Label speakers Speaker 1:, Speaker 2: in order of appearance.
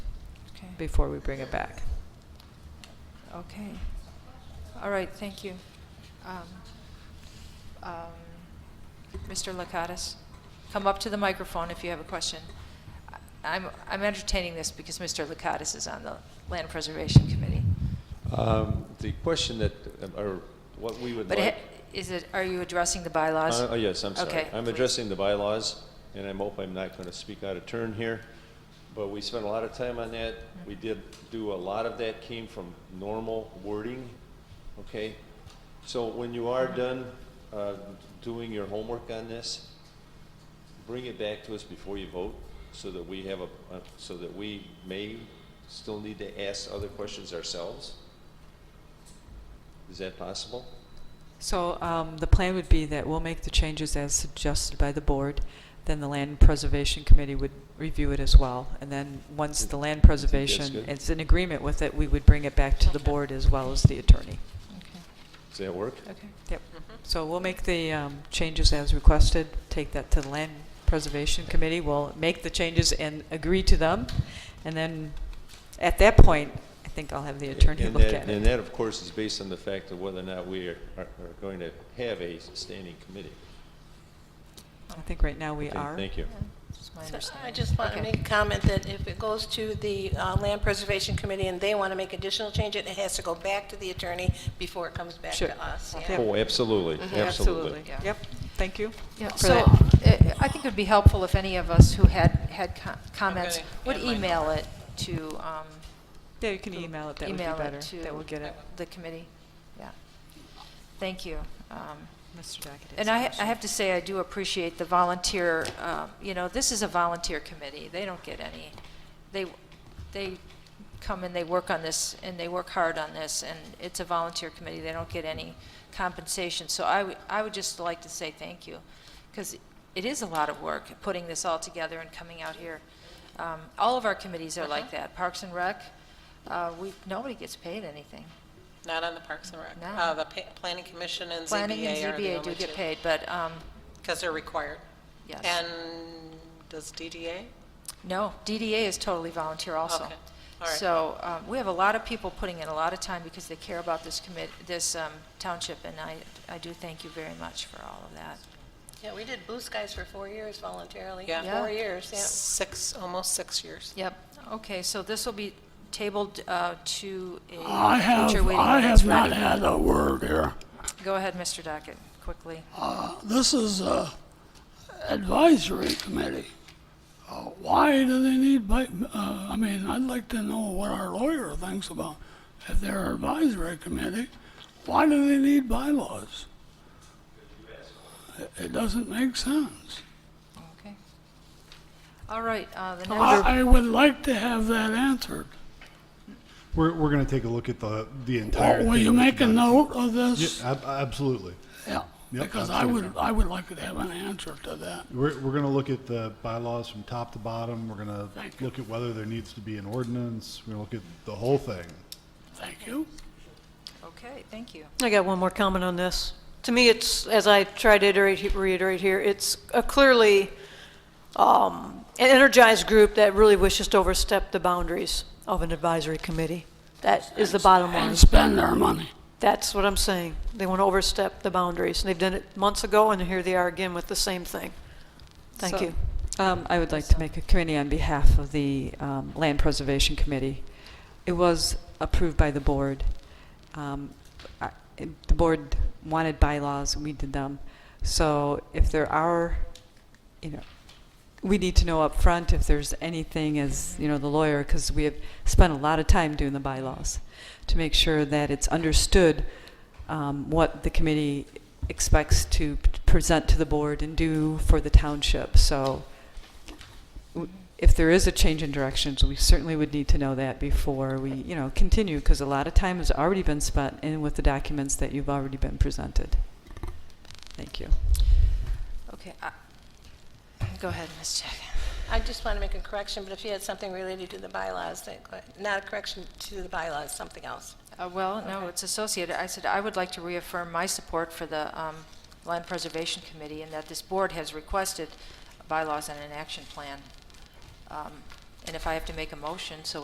Speaker 1: before we bring it back. Okay. All right, thank you. Um, um, Mr. Lakatos, come up to the microphone if you have a question. I- I'm, I'm entertaining this because Mr. Lakatos is on the Land Preservation Committee.
Speaker 2: Um, The question that, um, or what we would
Speaker 1: But it-
Speaker 2: like.
Speaker 1: is it, are you addressing the bylaws?
Speaker 2: Uh, Oh, yes, I'm sorry.
Speaker 1: Okay,
Speaker 2: I'm
Speaker 1: please.
Speaker 2: addressing the bylaws, and I hope I'm not going to speak out of turn here, but we spent a lot of time on that.
Speaker 1: Mm-hmm.
Speaker 2: We did do, a lot of that came from normal wording, okay? So when you
Speaker 1: Mm-hmm.
Speaker 2: are done uh, doing your homework on this, bring it back to us before you vote, so that we have a, uh, so that we may still need to ask other questions ourselves. Is that possible?
Speaker 3: So um, the plan would be that we'll make the changes as suggested by the board, then the Land Preservation Committee would review it as well, and then once the Land Preservation
Speaker 2: good.
Speaker 3: is in agreement with it, we would bring it back to the
Speaker 1: Okay.
Speaker 3: board as well as the attorney.
Speaker 1: Okay,
Speaker 2: Does that work?
Speaker 1: okay.
Speaker 3: Yep. So we'll make the um, changes as requested, take that to the Land Preservation Committee, we'll make the changes and agree to them, and then at that point, I think I'll have the attorney
Speaker 2: And
Speaker 3: look
Speaker 2: that-
Speaker 3: at
Speaker 2: And
Speaker 3: it.
Speaker 2: that, of course, is based on the fact of whether or not we are, are are going to have a standing committee.
Speaker 3: I think right now we
Speaker 2: Okay,
Speaker 3: are.
Speaker 2: Thank you.
Speaker 1: That's my
Speaker 4: So
Speaker 1: understanding.
Speaker 4: I just want to
Speaker 1: Okay.
Speaker 4: make a comment that if it goes to the uh, Land Preservation Committee and they want to make additional change, it has to go back to the attorney before it comes back
Speaker 3: Sure.
Speaker 4: to us. yeah.
Speaker 3: Yep.
Speaker 2: Oh, absolutely,
Speaker 3: Mm-hmm.
Speaker 2: absolutely.
Speaker 1: Yeah.
Speaker 3: Yep, thank you.
Speaker 1: Yeah,
Speaker 3: for
Speaker 1: so
Speaker 3: that.
Speaker 1: uh, I think it'd be helpful if any of us who had, had co- comments
Speaker 4: gonna
Speaker 1: would
Speaker 4: add mine.
Speaker 1: email it to, um,
Speaker 3: Yeah, you can email it, that would be
Speaker 1: email
Speaker 3: better.
Speaker 1: it to.
Speaker 3: That will get it.
Speaker 1: The committee, yeah. Thank you. Um,
Speaker 3: Mr. Dockett.
Speaker 1: And I, I have to say, I do appreciate the volunteer, um, you know, this is a volunteer committee. They don't get any, they, they come and they work on this, and they work hard on this, and it's a volunteer committee. They don't get any compensation. So I, would- I would just like to say thank you, because it is a lot of work, putting this all together and coming out here. Um, All of our committees are
Speaker 5: Uh-huh.
Speaker 1: like that. Parks and Rec, uh, we, nobody gets paid anything.
Speaker 5: Not on the Parks and Rec.
Speaker 1: No.
Speaker 5: Uh, The pa- Planning Commission and
Speaker 1: Planning and
Speaker 5: ZBA are the
Speaker 1: ZBA do
Speaker 5: only
Speaker 1: get
Speaker 5: two.
Speaker 1: paid, but, um,
Speaker 5: Because they're required.
Speaker 1: yes.
Speaker 5: And does DDA?
Speaker 1: No, DDA is totally volunteer also.
Speaker 5: Okay, all right.
Speaker 1: So um, we have a lot of people putting in a lot of time because they care about this commit, this um, township, and I, I do thank you very much for all of that.
Speaker 4: Yeah, we did Blue Skies for four years voluntarily.
Speaker 5: Yeah.
Speaker 1: Yeah.
Speaker 4: Four years, yeah.
Speaker 5: Six, almost six years.
Speaker 1: Yep. Okay, so this will be tabled uh, to
Speaker 6: I
Speaker 1: a
Speaker 6: have,
Speaker 1: future waiting.
Speaker 6: I have not had a word here.
Speaker 1: Go ahead, Mr. Dockett, quickly.
Speaker 6: Uh, This is a advisory committee. Uh, Why do they need, bi- uh, I mean, I'd like to know what our lawyer thinks about, if they're advisory committee, why do they need bylaws? It- It doesn't make sense.
Speaker 1: Okay. All right, uh, the next,
Speaker 6: I I would like to have that answered.
Speaker 7: We're, we're going to take a look at the, the entire.
Speaker 6: Will
Speaker 7: thing.
Speaker 6: Oh, you make a note of
Speaker 7: Yeah,
Speaker 6: this?
Speaker 7: ab- absolutely.
Speaker 6: Yeah,
Speaker 7: Yep,
Speaker 6: because I would, I would like to have an answer to that.
Speaker 7: We're, we're going to look at the bylaws from top to bottom. We're going to
Speaker 6: Thank you.
Speaker 7: look at whether there needs to be an ordinance. We're going to look at the whole thing.
Speaker 6: Thank you.
Speaker 1: okay, thank you.
Speaker 8: I got one more comment on this. To me, it's, as I try to iterate, reiterate here, it's a clearly um, an energized group that really wishes to overstep the boundaries of an advisory committee. That is the bottom line.
Speaker 6: And spend their money.
Speaker 8: That's what I'm saying. They want to overstep the boundaries, and they've done it months ago, and here they are again with the same thing. Thank
Speaker 3: So,
Speaker 8: you.
Speaker 3: Um, I would like to make a committee on behalf of the um, Land Preservation Committee. It was approved by the board. Um, I- it- The board wanted bylaws, and we did them. So if there are, you know, we need to know up front if there's anything as, you know, the lawyer, because we have spent a lot of time doing the bylaws to make sure that it's understood um, what the committee expects to p- present to the board and do for the township. So w- if there is a change in directions, we certainly would need to know that before we, you know, continue, because a lot of time has already been spent in with the documents that you've already been presented. Thank you.
Speaker 1: Okay, I- go ahead, Ms. Jack.
Speaker 4: I just want to make a correction, but if you had something related to the bylaws, that- not a correction to the bylaws, something else.
Speaker 1: Uh, Well, no, it's associated. I said, I would like to reaffirm my support for the um, Land Preservation Committee and that this board has requested bylaws and an action plan. Um, And if I have to make a motion, so